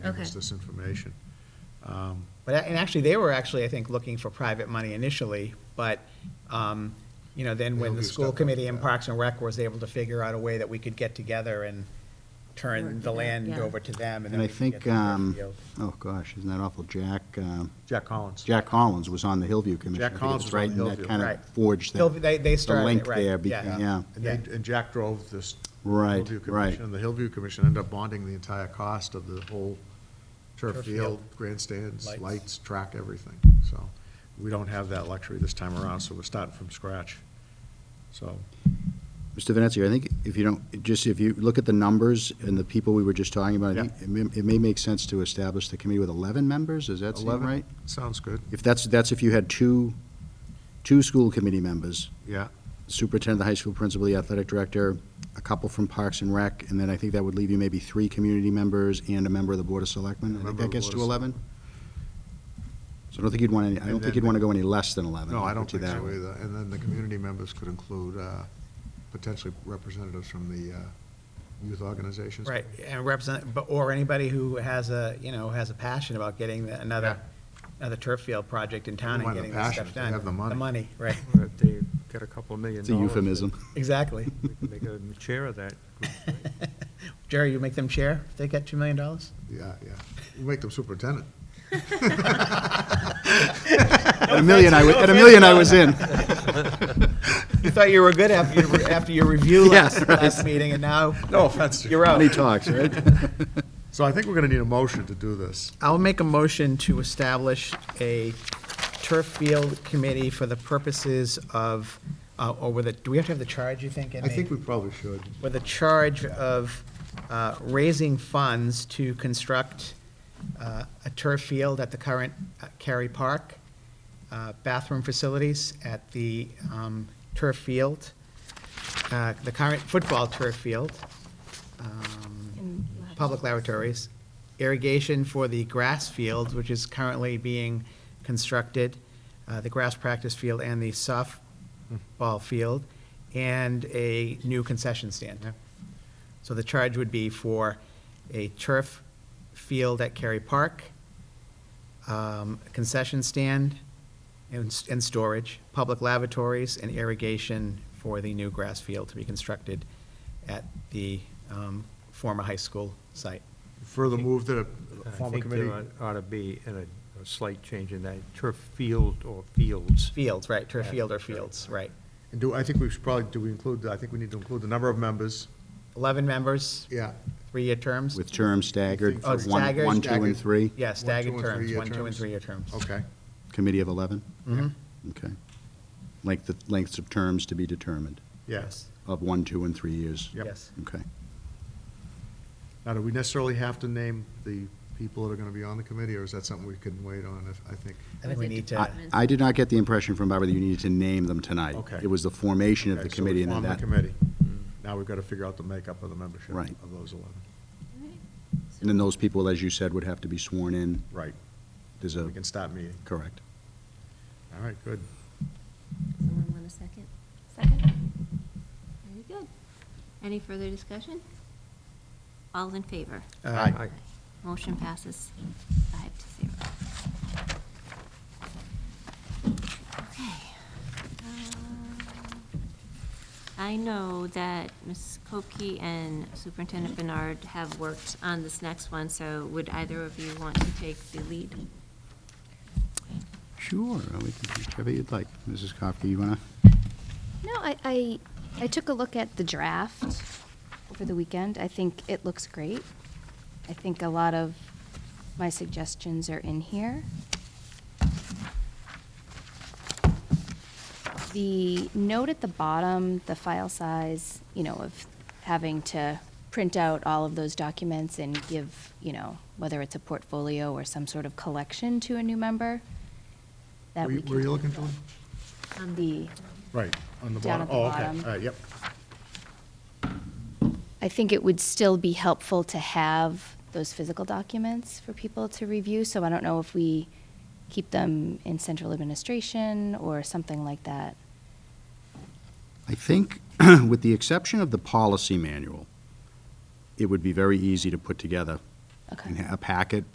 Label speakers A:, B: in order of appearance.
A: gave us
B: Okay.
A: this information. Um,
C: But, a- and actually, they were actually, I think, looking for private money initially, but, um, you know, then when
A: They'll
C: the
A: do
C: school
A: stuff like
C: committee and
A: that.
C: Parks and Rec was able to figure out a way that we could get together and turn
B: Work
C: the
B: it out,
C: land
B: yeah.
C: over to them, and then
D: And I
C: we could get
D: think,
C: the
D: um,
C: Fairfield.
D: oh gosh, isn't that awful, Jack, um,
A: Jack Collins.
D: Jack Collins was on the Hillview Commission.
A: Jack
D: I think it
A: Collins was on the
D: Right, and
A: Hillview.
D: that kind
C: Right.
D: of forged
C: Hill-
D: that.
C: they- they started it,
D: The
C: right,
D: link there, be-
C: yeah.
D: yeah.
A: And they,
C: Yeah.
A: and Jack drove this.
D: Right,
A: Hillview
D: right.
A: Commission, And the Hillview Commission ended up bonding the entire cost of the whole turf
C: Turf
A: field,
C: field.
A: grandstands,
C: Lights.
A: lights, track, everything. So we don't have that luxury this time around, so we're starting from scratch. So,
D: Mr. Venezia, I think if you don't, just if you look at the numbers and the people we were just talking about, I
A: Yeah.
D: think it may- it may make sense to establish the committee with 11 members, does that seem
A: 11?
D: right?
A: sounds good,
D: If that's, that's if you had two, two school committee members,
A: yeah.
D: superintendent of the high school principal, the athletic director, a couple from Parks and Rec, and then I think that would leave you maybe three community members and a member of the Board of Selectmen. I think
A: Member of
D: that
A: the
D: gets
A: Board
D: to
A: of
D: 11? So I don't think you'd want any, I
A: And
D: don't
A: then
D: think you'd
A: the-
D: want to go any less than 11.
A: No, I don't
D: put you
A: think so
D: that way.
A: either. And then the community members could include uh, potentially representatives from the uh, youth organizations.
C: Right, and represent, but, or anybody who has a, you know, has a passion about getting the- another, another turf field project in town and
A: Mind the
C: getting this
A: passion,
C: stuff
A: if they
C: done.
A: have the money.
C: The money, right,
E: Well, If they get a couple of million
D: It's a
E: dollars.
D: euphemism.
C: exactly.
E: they can Make a chair of that.
C: Jerry, you make them chair if they get $2 million?
A: Yeah, yeah. You make them superintendent.
D: At a million, I, wa- at a million, I was in.
C: You thought you were good after, your- after your review last,
D: Yeah, right.
C: last meeting, and now
A: No offense.
C: you're out.
D: Money talks, right?
A: So I think we're going to need a motion to do this.
C: I'll make a motion to establish a turf field committee for the purposes of, uh, or with a, do we have to have the charge, you think? in
A: I
C: the-
A: think we probably should.
C: With a charge of uh, raising funds to construct uh, a turf field at the current uh, Cary Park, uh, bathroom facilities at the um, turf field, uh, the current football turf field, um,
B: And we'll have to-
C: public laboratories, irrigation for the grass field, which is currently being constructed, uh, the grass practice field and the softball field, and a new concession stand. So the charge would be for a turf field at Cary Park, um, concession stand and, and storage, public lavatories, and irrigation for the new grass field to be constructed at the um, former high school site.
A: Further move that
E: And
A: a
E: I
A: form a
C: uh,
E: think
A: committee.
E: there ought- ought to be in a a slight change in that turf field or fields.
C: Fields, right, turf field or fields, right.
A: And do, I think we should probably, do we include, I think we need to include the number of members.
C: 11 members,
A: Yeah.
C: three-year terms?
D: With terms staggered,
C: Oh,
D: for one,
C: staggered,
D: one, two,
A: staggered.
D: and three,
C: Yeah, staggered
A: and
C: terms,
A: three-year
C: one, two, and
A: terms.
C: three-year terms.
A: Okay.
D: committee of 11?
C: Mhm.
A: Mm-hmm.
D: Okay. Length, of- lengths of terms to be determined,
A: Yes.
D: of one, two, and three years?
A: Yep.
C: Yes.
D: Okay.
A: Now, do we necessarily have to name the people that are going to be on the committee, or is that something we can wait on, if- I think?
C: I think we need to,
D: I- I did not get the impression from Barbara that you needed to name them tonight.
A: Okay.
D: It was the formation of
A: Okay, so we
D: the committee and
A: form
D: then
A: the
D: that.
A: committee. Now we've got to figure out the makeup of the membership
D: Right.
A: of those 11.
D: And then those people, as you said, would have to be sworn in.
A: Right.
D: There's a,
A: We can stop meeting.
D: correct.
A: All right, good.
B: Someone want a second? Second. Very good. Any further discussion? All in favor?
A: Uh,
C: Aye.
E: Aye.
B: Motion passes five to zero. Okay. Um, I know that Ms. Kopke and Superintendent Bernard have worked on this next one, so would either of you want to take the lead?
D: Sure, we can, whichever you'd like. Mrs. Kofke, you want to?
F: No, I, I, I took a look at the draft over the weekend. I think it looks great. I think a lot of my suggestions are in here. The note at the bottom, the file size, you know, of having to print out all of those documents and give, you know, whether it's a portfolio or some sort of collection to a new member, that
A: Were
F: we
A: you-
F: can.
A: were you looking for one?
B: On
F: The
A: Right, on the
F: Down
A: bottom.
F: at the
A: Oh,
F: bottom.
A: okay, all right, yep.
F: I think it would still be helpful to have those physical documents for people to review, so I don't know if we keep them in central administration or something like that.
D: I think, with the exception of the policy manual, it would be very easy to put together
F: Okay.
D: in a packet,